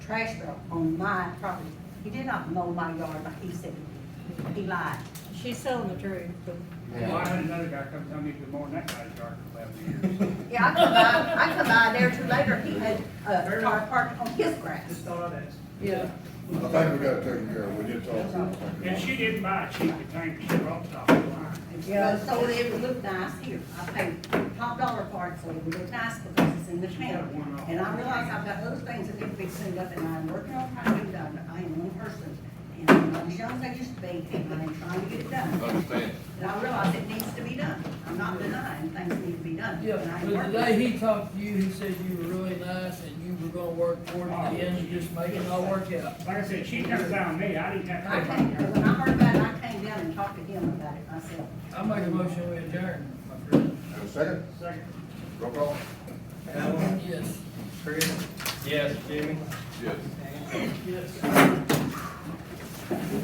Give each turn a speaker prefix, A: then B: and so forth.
A: trash barrel on my property. He did not mow my yard like he said. He lied.
B: She's telling the truth, but
C: Well, I
D: Yeah.
C: had another guy come tell me good morning, that guy's yard for eleven years.
A: Yeah, I come by, I come by there too later, he had uh, a car parked on his grass.
C: Just thought I'd ask.
B: yeah,
E: I think we got it taken care of, we did talk. about
C: And
E: it.
C: she didn't buy a cheap container, she brought it off the line.
A: Yeah, so it would look nice here. I paid top dollar for it, so it would look nice because it's in the town. And I realize I've got other things that need to be cleaned up, and I'm working on trying to do that. I am one person, and I'm not as young as I used to be, and I'm trying to get it done.
D: Understand.
A: And I realize it needs to be done. I'm not denying things need to be done.
F: Yeah,
A: and I'm
F: but
A: working.
F: today he talked to you, he said you were really nice and you were gonna work toward it again and just make it all work out.
C: Like I said, she comes down me, I didn't
A: I
C: have to.
A: came, when I heard about it, I came down and talked to him about it myself.
F: I make a motion we adjourn, my friend.
E: Have a second,
C: Second.
E: roll call?
F: Yes.
D: Yes.
F: Yes.